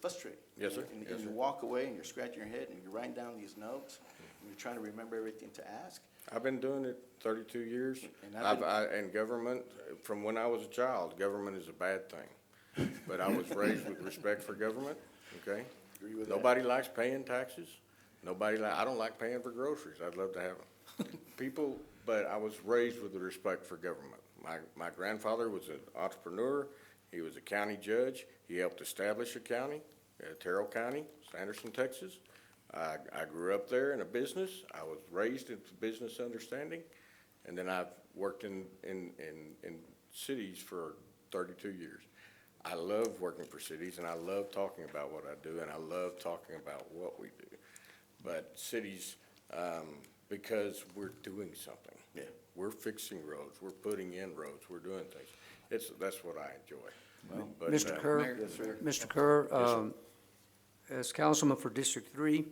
frustrating. Yes, sir. And, Yes, and you sir. walk away and you're scratching your head and you're writing down these notes and you're trying to remember everything to ask. I've been doing it thirty-two years. And I've I've, been- I, and government, from when I was a child, government is a bad thing. But I was raised with respect for government, okay? Agree with that. Nobody likes paying taxes. Nobody li- I don't like paying for groceries. I'd love to have them. People, but I was raised with the respect for government. My, my grandfather was an entrepreneur. He was a county judge. He helped establish a county, uh, Terrell County, Sanderson, Texas. I, I grew up there in a business. I was raised in business understanding. And then I've worked in, in, in, in cities for thirty-two years. I love working for cities and I love talking about what I do and I love talking about what we do. But cities, um, because we're doing something. Yeah. We're fixing roads, we're putting in roads, we're doing things. It's, that's what I enjoy. But, Mr. uh, Kerr, Mayor, yes, sir. Mr. Kerr, um, as councilman for District Three,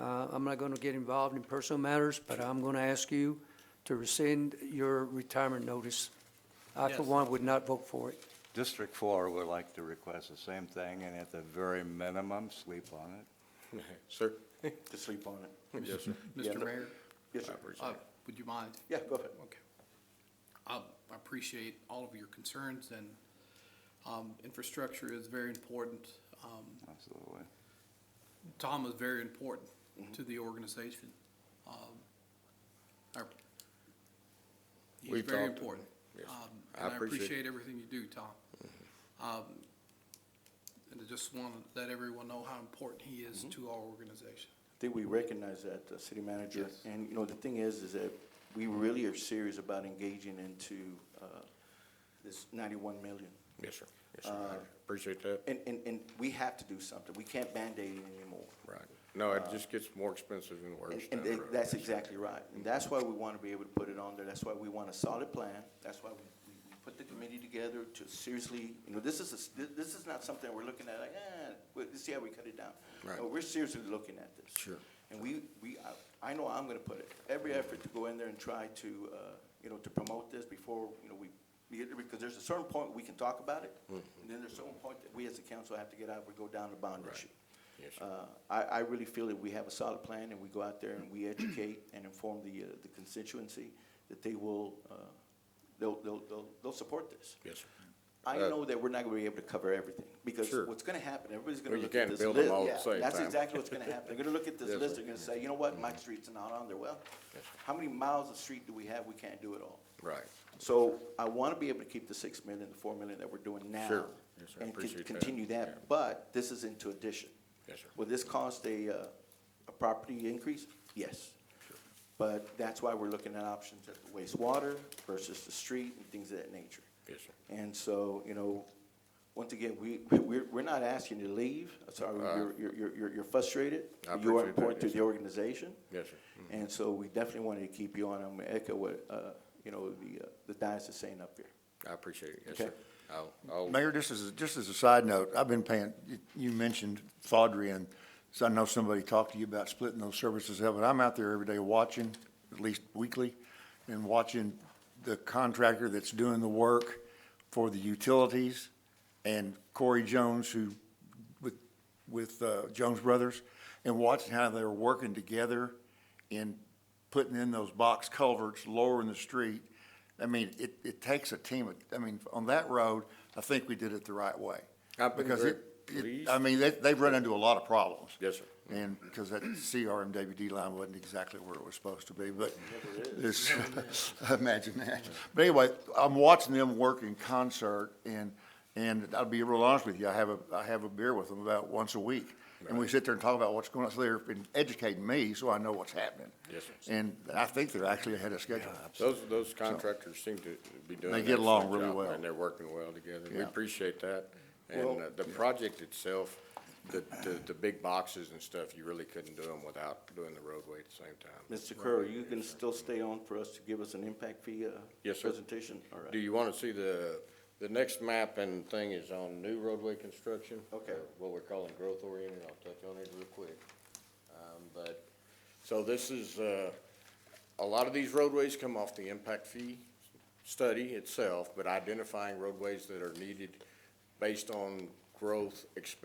uh, I'm not gonna get involved in personal matters, but I'm gonna ask you to rescind your retirement notice. I, for one, would not vote for it. District Four would like to request the same thing, and at the very minimum, sleep on it. Sir? To sleep on it. Yes, sir. Yeah, Mr. no- Mayor, Yes, sir. uh, would you mind? Yeah, go ahead. Okay. I I appreciate all of your concerns, and um, infrastructure is very important. Um, Absolutely. Tom is very important Mm-hmm. to the organization. Um, our- He's We've very talked- important. yes. Um, I And appreciate- I Mm-hmm. appreciate everything you do, Tom. Um, And I just want to let everyone know how important he is Mm-hmm. to our organization. I think we recognize that, the city manager. Yes. And, you know, the thing is, is that we really are serious about engaging into, uh, this ninety-one million. Yes, sir. Yes, sir. Uh, I Appreciate that. And, and, and we have to do something. We can't Band-Aid it anymore. Right. No, it just gets more expensive and worse. Uh, And, and down the that- road. that's exactly right. And that's why we want to be able to put it on there. That's why we want a solid plan. That's why we, we we put the committee together to seriously, you know, this is, a s- thi- this is not something we're looking at like, eh, well, let's see how we cut it down. Right. No, we're seriously looking at this. Sure. And we, we, I- I know I'm going to put it, every effort to go in there and try to, uh, you know, to promote this before, you know, we, we get- because there's a certain point we can talk about it. And then there's a certain point that we as a council have to get out, we go down the bond Mm-hmm. Right. issue. Yes, sir. Uh, I, I really feel that we have a solid plan and we go out there and we educate and inform the, uh, the constituency that they will, uh, they'll, they'll, they'll, they'll support this. Yes, sir. I Uh, know that we're not gonna be able to cover everything, because Sure. what's gonna happen, everybody's gonna Well, you look at can't this list. build them all at the Yeah, same That's time. exactly what's gonna happen. They're gonna look at this Yes, list, sir. Mm-hmm. they're gonna say, you know what, my street's not on there. Well, how many miles of street do we have? We can't do it all. Right. So I want to be able to keep the six million, the four million that we're doing now. Sure. Yes, sir. I And con- appreciate that. continue Yeah. that, but this is into addition. Yes, sir. Will this cost a, uh, a property increase? Yes. But that's why we're looking at options at the wastewater versus the street and things of that nature. Yes, sir. And so, you know, once again, we, we're, we're not asking you to leave. I'm Sorry, you're- you're, you're, you're- you're frustrated. Uh, I You are appreciate that, important to yes, the sir. organization. Yes, sir. Mm-hmm. And so we definitely wanted to keep you on. I'm gonna echo what, uh, you know, the, uh, the diocese is saying up here. I appreciate it. Yes, Okay. sir. I'll, I'll. Mayor, just as, a- just as a side note, I've been paying, you- you mentioned Thodry, and so I know somebody talked to you about splitting those services up, but I'm out there every day watching, at least weekly, and watching the contractor that's doing the work for the utilities, and Corey Jones, who, with, with uh, Jones Brothers, and watching how they're working together in putting in those box culverts, lowering the street. I mean, it, it takes a team, of- I mean, on that road, I think we did it the right way. I've been Because very it, it, pleased. I mean, they, they've run into a lot of problems. Yes, sir. And, because that CRMWD line wasn't exactly where it was supposed to be, but this, imagine that. But anyway, I'm watching them work in concert, and, and I'll be real honest with you, I have a, I have a beer with them about once a week. And we sit there and talk about what's going on, so they're educating me, so I know what's happening. Yes, sir. And I think they're actually ahead of schedule. Those, those contractors seem to be doing. They an get along excellent really job, well. And they're working well together. We Yeah. appreciate that. And uh, the project itself, the, the, the big boxes and stuff, you really couldn't do them without doing the roadway at the same time. Mr. Kerr, are you can still stay on for us to give us an impact fee, uh, Yes, sir. presentation? All Do right. you want to see the, the next map and thing is on new roadway construction? Okay. What we're calling growth oriented. I'll touch on it real quick. Um, but, so this is, uh, a lot of these roadways come off the impact fee study itself, but identifying roadways that are needed based on growth expected